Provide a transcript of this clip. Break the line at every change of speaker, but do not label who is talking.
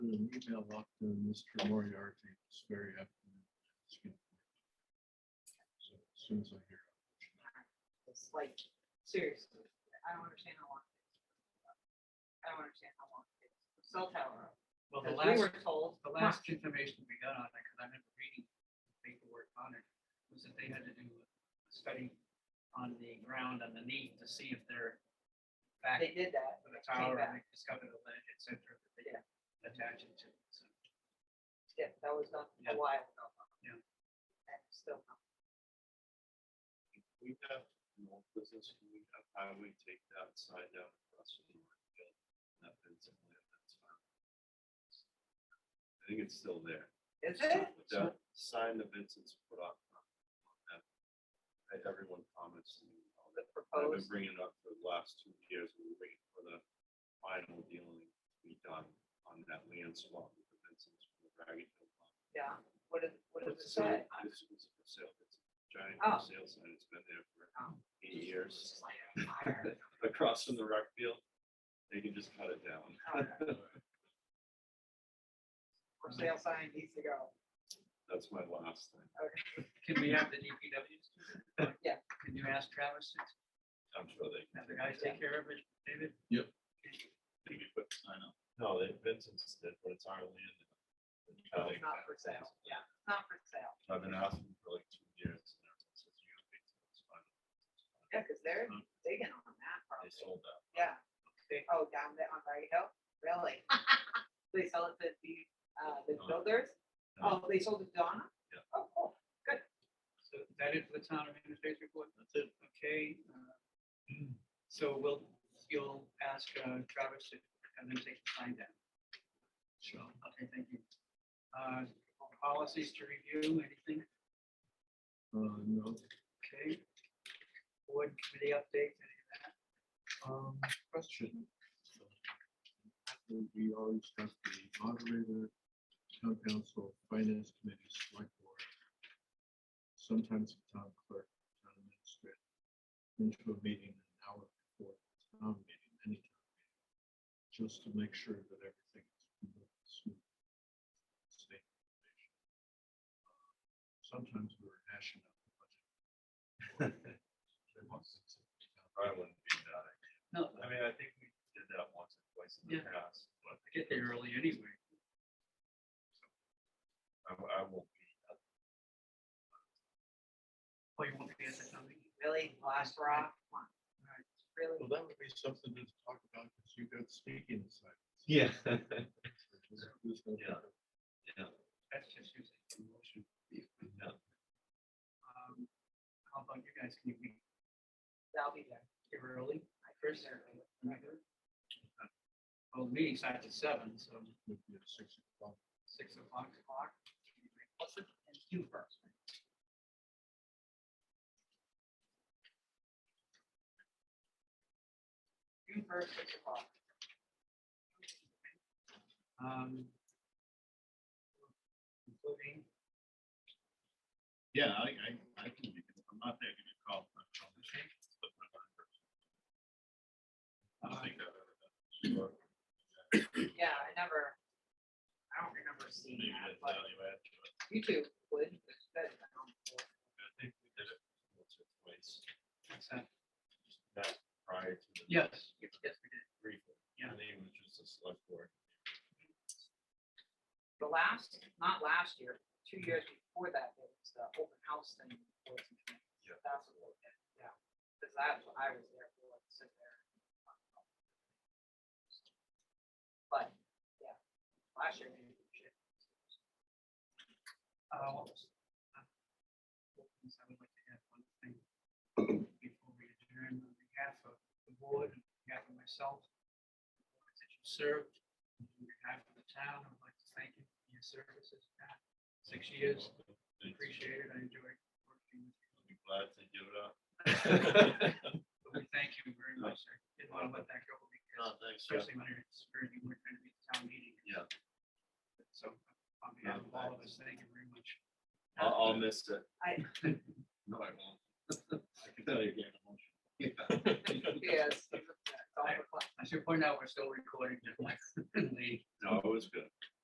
email up to Mr. Moriarty this very afternoon. So as Soon as I hear.
It's like, seriously, I don't understand how long. it takes. I don't understand how long. it takes. Cell tower,
Well, the
because we
last,
were told.
the last information we got on that, because I remember reading the paperwork on it, was that they had to do a study on the ground underneath to see if they're back
They did that.
to the tower
back.
and they discovered the ledge, et cetera, that they
Yeah.
attach it to. So,
Yeah, that was done
Yeah.
a while ago.
Yeah.
And it's still. not-
We have more business, we have highway take that side down across from the work field. That fits in there, that's fine. I think it's still there.
Is it?
With that sign that Vincent's put up. on that, I- Everyone comments to me. on that. I've been
Proposed.
bringing it up for the last two years, we were waiting for the final dealing to be done on that land swap. with the Vincent's from the Ragged Hill lot.
Yeah. What is, what does it
It's sold.
say?
It's- it's for sale. It's a Giant
Oh.
for sale sign, it's been there for
Oh.
eighty years.
It's like a fire.
across from the rec field, they can just cut it down.
Oh, Uh, For sale sign needs to go.
That's my last thing.
Can we have the DPWs? do that?
Yeah.
Can you ask Travis, to
I'm sure they.
have the guys take care of it, David?
they can put sign up. No, they, Vincent's did, but it's our land.
Oh.
Uh,
It's not for sale. Yeah, it's not for sale.
I've been asking for like two years. and everyone says, "You don't think so, it's fine."
Yeah, because they're
Hmm.
digging on that
They
probably.
sold that.
Yeah. Oh, down there on Barry Hill? Really? They sell it to the, uh, the
Donna.
builders? Oh, they sold it to Donna?
Yeah.
Oh, cool.
So is that it for the town administrator's report? That's it. Okay. uh, So we'll, you'll ask uh, Travis to have them take the sign down. Sure. Okay, thank you. Uh, Policies to review, anything?
Uh, no,
Okay. Board committee updates, any of that?
um, question. We always have the moderator, town council, finance committee, select board. Sometimes the town clerk, town administrator. Into a meeting an hour before the town meeting, any town meeting. Just to make sure that everything is moving smooth. Same information. Uh, Sometimes we're hashing out the budget. They want to sit down.
I wouldn't be that.
No,
I mean, I think we did that once or twice in the
Yeah.
past, but
I get there early anyway.
I, I won't be. at
Oh, you won't be at the town meeting?
Really? Last rock? Come on.
All right.
Really?
Well, that would be something to talk about, because you got speaking
the-
sites.
Yeah.
Yeah.
Yeah.
That's just using the motion.
Yeah.
Um, How about you guys? Can you be
I'll be there.
here early?
I
First, well, the meeting starts at seven, so
Would be at six o'clock.
six o'clock, o'clock.
What's the, and you first. June first, six o'clock.
Um. Including,
Yeah, I, I, I can be, I'm not there, give me a call. I'll call the chief, but my phone works. I
uh,
don't think I've ever done this before.
Yeah, I never, I don't remember seeing
Maybe
that,
that's
but
value add to it.
you two would. that's good. I don't-
I think we did it once or twice,
what's that?
that prior to the.
Yes, yes, yes, we did.
Briefing,
Yeah.
and then it was just a select board.
The last, not last year, two years before that, it was the open house thing. for the community.
Yeah.
That's what, we did, yeah, because that's what I was there for, to sit there. and talk about it. But, yeah, last year. we did shit.
Uh, what was- uh, I would like to add one thing before we adjourn on behalf of the board, on behalf of myself. That you served, on behalf of the town, I'd like to thank you for your services, Pat. Six years,
Thanks.
appreciate it, I enjoyed working with you.
I'll be glad to give it up.
But we thank you very much, sir. Didn't want to let that go because
No, thanks, Jeff.
especially when it's, very- you weren't going to be at the town meeting.
Yeah.
So on behalf of all of us, thank you very much.
I'll, I'll miss it.
I-
No, I won't. I can tell you again.
Yes. it's all the fun.
I should point out, we're still recording. just like the-
No, it was good.